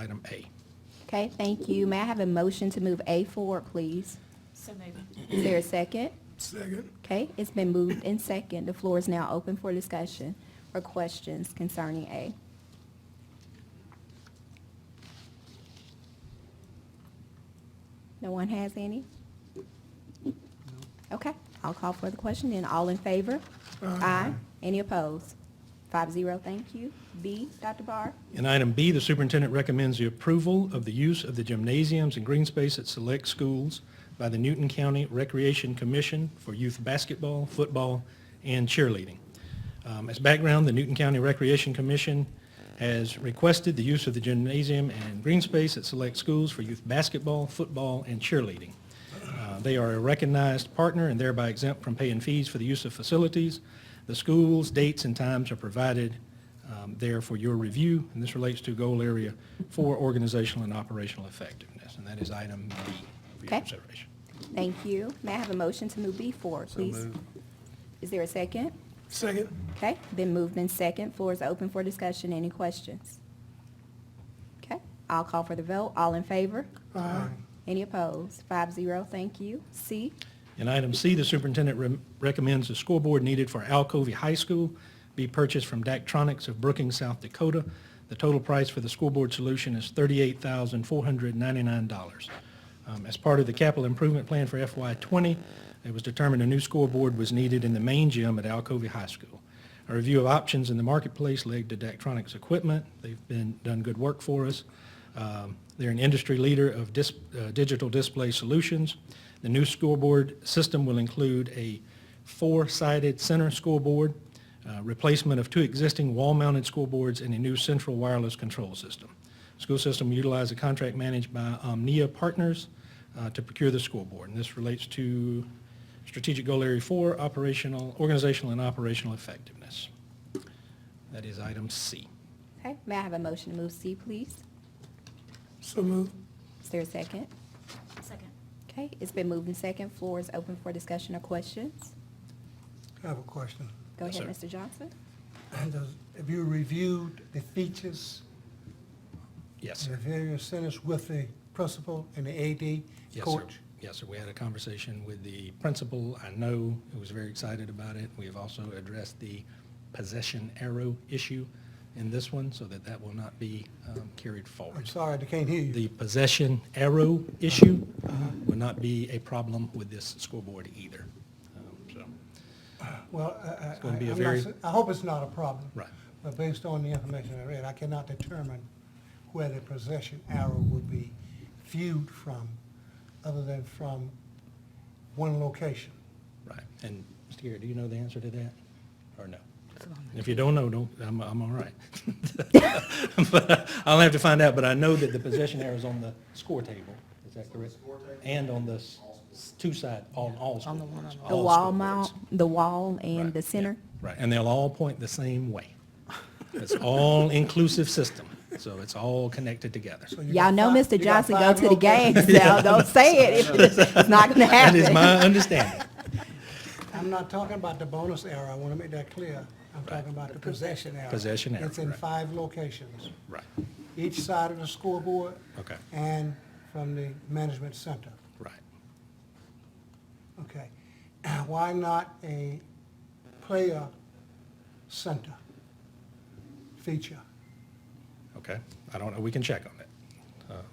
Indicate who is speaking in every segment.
Speaker 1: item A.
Speaker 2: Okay, thank you. May I have a motion to move A forward, please?
Speaker 3: So moved.
Speaker 2: Is there a second?
Speaker 1: Second.
Speaker 2: Okay, it's been moved in second. The floor is now open for discussion or questions concerning A. No one has any? Okay, I'll call for the question then. All in favor? Aye. Any opposed? Five zero, thank you. B, Dr. Barr?
Speaker 1: In item B, the superintendent recommends the approval of the use of the gymnasiums and green space at select schools by the Newton County Recreation Commission for youth basketball, football, and cheerleading. Um, As background, the Newton County Recreation Commission has requested the use of the gymnasium and green space at select schools for youth basketball, football, and cheerleading. Uh, They are a recognized partner and thereby exempt from paying fees for the use of facilities. The schools, dates, and times are provided um, there for your review, and this relates to goal area for organizational and operational effectiveness, and that is item B for your
Speaker 2: Okay.
Speaker 1: consideration.
Speaker 2: Thank you. May I have a motion to move B forward, please? Is there a second?
Speaker 1: Second.
Speaker 2: Okay, been moved in second. Floor is open for discussion. Any questions? Okay, I'll call for the vote. All in favor? Aye. Any opposed? Five zero, thank you. C,
Speaker 1: In item C, the superintendent rem- recommends the scoreboard needed for Alcovey High School be purchased from Daktronics of Brookings, South Dakota. The total price for the scoreboard solution is $38,499. Um, As part of the capital improvement plan for FY '20, it was determined a new scoreboard was needed in the main gym at Alcovey High School. A review of options in the marketplace led to Daktronics equipment. They've been, done good work for us. Um, They're an industry leader of dis- uh, digital display solutions. The new scoreboard system will include a four-sided center scoreboard, uh, replacement of two existing wall-mounted scoreboards, and a new central wireless control system. School system will utilize a contract managed by Omnia Partners uh, to procure the scoreboard. And this relates to strategic goal area four, operational, organizational and operational effectiveness. That is item C.
Speaker 2: okay, may I have a motion to move C, please?
Speaker 1: So moved.
Speaker 2: Is there a second?
Speaker 3: Second.
Speaker 2: Okay, it's been moved in second. Floor is open for discussion or questions.
Speaker 4: I have a question.
Speaker 2: Go
Speaker 1: Yes,
Speaker 2: ahead, Mr. Johnson.
Speaker 4: Does- Have you reviewed the features
Speaker 1: Yes,
Speaker 4: in the
Speaker 1: sir.
Speaker 4: various centers with the principal and the AD
Speaker 1: Yes, sir.
Speaker 4: coach?
Speaker 1: Yes, sir. We had a conversation with the principal. I know he was very excited about it. We have also addressed the possession arrow issue in this one so that that will not be um, carried
Speaker 4: I'm
Speaker 1: forward.
Speaker 4: sorry, I can't hear you.
Speaker 1: The possession arrow issue will not be a problem with this scoreboard either. Um, So,
Speaker 4: Well, I- I,
Speaker 1: gonna
Speaker 4: I-
Speaker 1: be a
Speaker 4: I'm not
Speaker 1: very-
Speaker 4: s- I hope it's not a problem.
Speaker 1: Right.
Speaker 4: But based on the information I read, I cannot determine where the possession arrow would be viewed from, other than from one location.
Speaker 1: right. And, Mr. Garrett, do you know the answer to that or no? If you don't know, don't, I'm, I'm all right. But I'll have to find out, but I know that the possession arrow is on the score table. Is that correct? And on the s- s- two side, on all scoreboards.
Speaker 2: The
Speaker 1: all
Speaker 2: wall
Speaker 1: scoreboards.
Speaker 2: mount, the wall and
Speaker 1: Right,
Speaker 2: the
Speaker 1: yeah,
Speaker 2: center.
Speaker 1: Right, and they'll all point the same way. It's all-inclusive system, so it's all connected together.
Speaker 4: So
Speaker 2: Y'all
Speaker 4: you got
Speaker 2: know
Speaker 4: five-
Speaker 2: Mr.
Speaker 4: you got
Speaker 2: Johnson go
Speaker 4: five
Speaker 2: to the
Speaker 4: locations.
Speaker 2: games now. Don't say it. It's not gonna
Speaker 1: That
Speaker 2: happen.
Speaker 1: is my understanding.
Speaker 4: I'm not talking about the bonus arrow, I want to make that clear. I'm
Speaker 1: Right.
Speaker 4: talking about the possession arrow.
Speaker 1: Possession arrow,
Speaker 4: It's in
Speaker 1: right.
Speaker 4: five locations,
Speaker 1: Right,
Speaker 4: each side of the scoreboard.
Speaker 1: Okay.
Speaker 4: And from the management center,
Speaker 1: right.
Speaker 4: okay. Why not a player center feature?
Speaker 1: Okay, I don't know, we can check on it.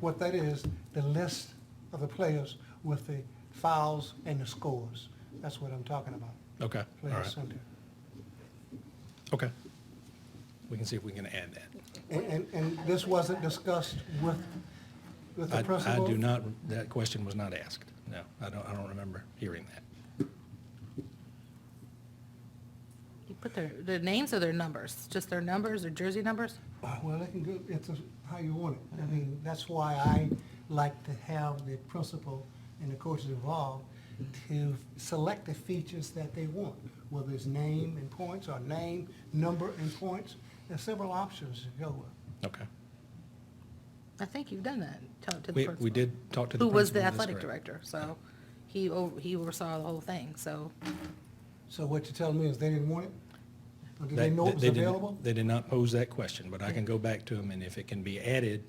Speaker 4: What that is, the list of the players with the fouls and the scores. That's what I'm talking about,
Speaker 1: Okay, all
Speaker 4: player
Speaker 1: right,
Speaker 4: center.
Speaker 1: okay. We can see if we can add that.
Speaker 4: And, and, and this wasn't discussed with, with
Speaker 1: I,
Speaker 4: the
Speaker 1: I
Speaker 4: principal?
Speaker 1: do not, that question was not asked. No, I don't, I don't remember hearing that.
Speaker 5: You put their, their names or their numbers, just their numbers or jersey numbers?
Speaker 4: Well, it can go, it's a- how you want it. I mean, that's why I like to have the principal and the coaches involved to select the features that they want, whether it's name and points or name, number and points. There's several options to go with.
Speaker 1: Okay.
Speaker 5: I think you've done that, tell it to the
Speaker 1: We,
Speaker 5: principal.
Speaker 1: we did talk to the principal.
Speaker 5: Who was the
Speaker 1: that's
Speaker 5: athletic
Speaker 1: correct.
Speaker 5: director, so he, o- he oversaw the whole thing, so
Speaker 4: So what you're telling me is they didn't want it? Or did they
Speaker 1: That-
Speaker 4: know it
Speaker 1: that
Speaker 4: was
Speaker 1: they didn't-
Speaker 4: available?
Speaker 1: They did not pose that question, but I can go back to them, and if it can be added